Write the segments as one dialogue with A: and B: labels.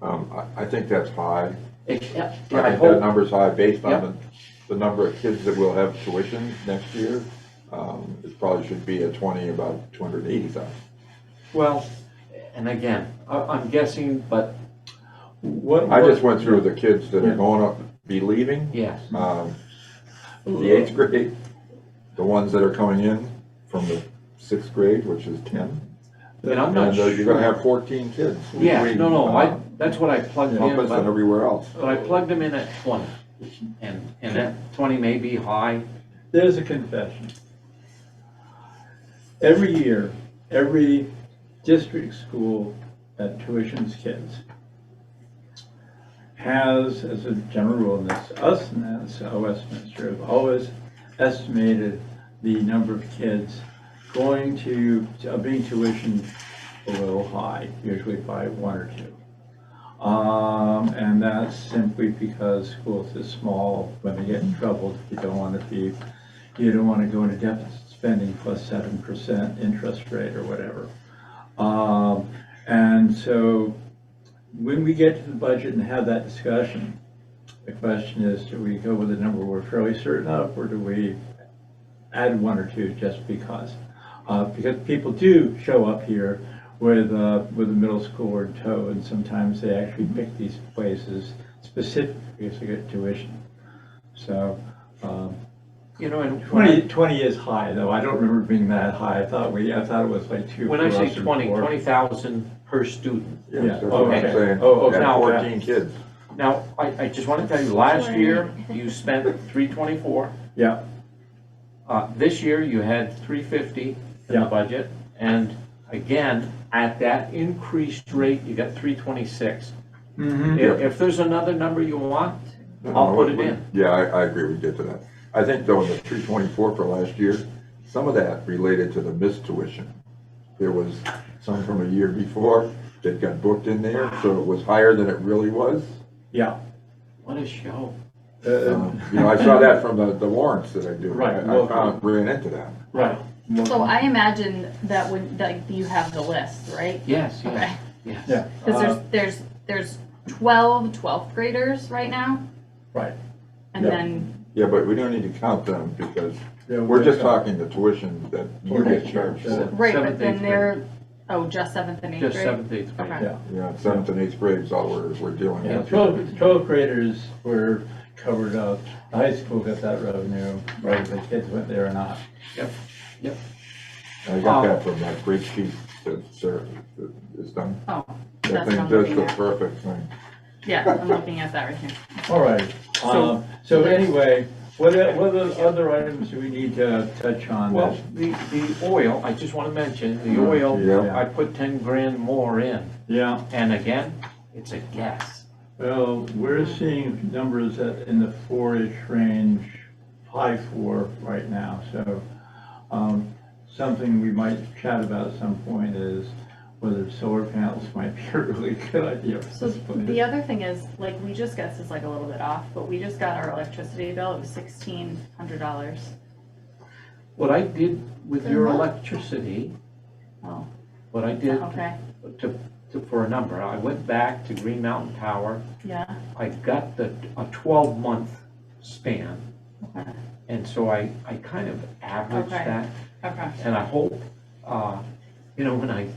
A: Um, I, I think that's high.
B: It- Yeah, yeah,
A: I think
B: I
A: that
B: hope,
A: number's high based
B: Yep.
A: on the, the number of kids that will have tuition next year. Um, it probably should be at twenty, about two hundred and eighty thousand.
B: well, and again, I, I'm guessing, but
C: What?
A: I
C: what-
A: just went through the kids that
C: Yeah.
A: are going up, be leaving,
B: yes,
A: um, the eighth grade, the ones that are coming in from the sixth grade, which is ten.
B: and I'm not
A: And uh,
B: sure.
A: you're gonna have fourteen kids.
B: Yeah,
A: between,
B: no, no, I,
A: uh,
B: that's what I plugged in,
A: Compass and
B: but,
A: everywhere else.
B: but I plugged them in at twenty, and, and that twenty may be high,
C: There's a confession. Every year, every district school that tuitions kids has, as a general rule, and that's us and that's Westminster, have always estimated the number of kids going to, uh, being tuitioned a little high, usually by one or two. Um, and that's simply because schools are small, when they get in trouble, you don't want to be, you don't want to go into deficit spending plus seven percent interest rate or whatever. Um, and so when we get to the budget and have that discussion, the question is, do we go with a number we're fairly certain of, or do we add one or two just because? Uh, because people do show up here with, uh, with a middle schooler in tow, and sometimes they actually pick these places specifically to get tuition. So, um,
B: you know, and. when I-
C: 20, 20 is high, though. I don't remember being that high. I thought we, I thought it was like two.
B: When I
C: for
B: say
C: us and
B: 20,
C: four.
B: 20,000 per student.
A: Yes,
C: Yeah.
A: that's what I'm
B: Okay.
A: saying.
C: Oh, okay.
A: Yeah,
B: Now-
A: Fourteen kids.
B: Now, I, I just want to tell you, last year, you spent 324.
C: Yeah,
B: Uh, This year, you had 350 in the
C: Yeah.
B: budget. And again, at that increased rate, you got 326. If,
C: mhm.
B: if there's another number you want,
A: No,
B: I'll
A: no,
B: put
A: we-
B: it
A: we-
B: in.
A: Yeah, I, I agree, we get to that. I think though, in the three twenty-four for last year, some of that related to the missed tuition. There was some from a year before that got booked in there, so it was higher than it really was.
C: yeah.
B: What a show.
C: Uh,
A: Um, You know, I saw that from the, the warrants that I do.
C: Right,
A: I- I
C: well-
A: found, ran into that.
C: Right.
D: So I imagine that would, like, you have the list, right?
B: Yes,
D: Okay,
B: yes, yes.
C: Yeah.
D: because
C: uh,
D: there's, there's, there's 12 12th graders right now,
C: Right.
D: and
C: Yeah.
D: then,
A: Yeah, but we don't need to count them because
C: Yeah,
A: we're just
C: yeah.
A: talking the tuition that you get charged for.
D: right,
B: Seventh,
D: but
B: eighth
D: then
B: grade.
D: they're, oh, just 7th and 8th grade?
B: Just seventh, eighth grade.
D: Okay.
A: Yeah, seventh and eighth grades, all we're, we're dealing
C: Yeah,
A: with.
C: 12, 12 graders were covered up. The High school got that revenue, whether the kids went there or not.
A: I got that from that great chief that Sarah is done.
D: Oh,
A: That
D: that's
A: thing
D: what I'm
A: does
D: looking
A: the
D: at.
A: perfect thing.
D: Yeah, I'm looking at that right here.
C: All right.
D: So-
C: Um, So anyway, what, e- what are the other items do we need to touch on?
B: Well, the, the oil, I just want to mention, the oil,
A: Mm-hmm. Yeah.
B: I put 10 grand more in.
C: Yeah.
B: And again, it's a guess.
C: Well, we're seeing numbers that in the four-ish range, high four right now, so, um, something we might chat about at some point is whether solar panels might be a really good idea at
D: So
C: this point.
D: the other thing is, like, we just guessed is like a little bit off, but we just got our electricity bill, it was $1,600.
B: What I did with
D: Then
B: your
D: what?
B: electricity,
D: Oh,
B: what I did
D: okay,
B: to, to, for a number, I went back to Green Mountain Power,
D: yeah,
B: I got the, a twelve month span.
D: Okay.
B: And so I, I kind of averaged
D: Okay.
B: that,
D: okay.
B: and I hope, uh, you know, when I,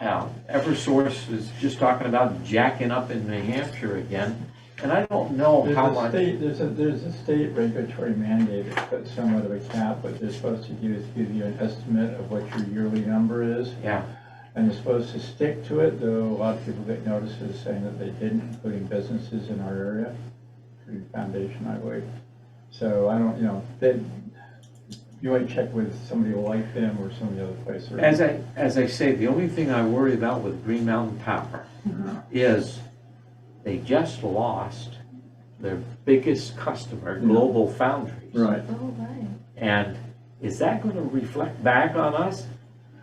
B: uh, Eversource is just talking about jacking up in New Hampshire again, and I don't know
C: There's
B: how
C: a
B: much.
C: state, there's a, there's a state regulatory mandate, it's put somewhat of a cap, what they're supposed to do is give you an estimate of what your yearly number is.
B: Yeah,
C: And you're supposed to stick to it, though a lot of people get notices saying that they didn't, including businesses in our area, through the foundation, I believe. So I don't, you know, they, you might check with somebody like them or some of the other place. or-
B: as I, as I say, the only thing I worry about with Green Mountain Power is they just lost their biggest customer, Global Foundries.
C: Right.
D: Oh, right.
B: And is that going to reflect back on us?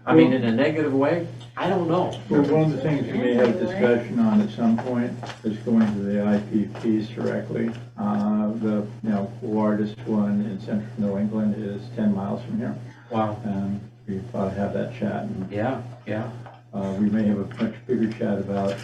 B: I mean, in a negative way? I don't know.
C: Well, one of the things we may have discussion on at some point is going to the IPPs directly. Uh, the, you know, largest one in central New England is ten miles from here.
B: Wow.
C: And we probably have that chat and
B: Yeah, yeah.
C: Uh, we may have a much bigger chat about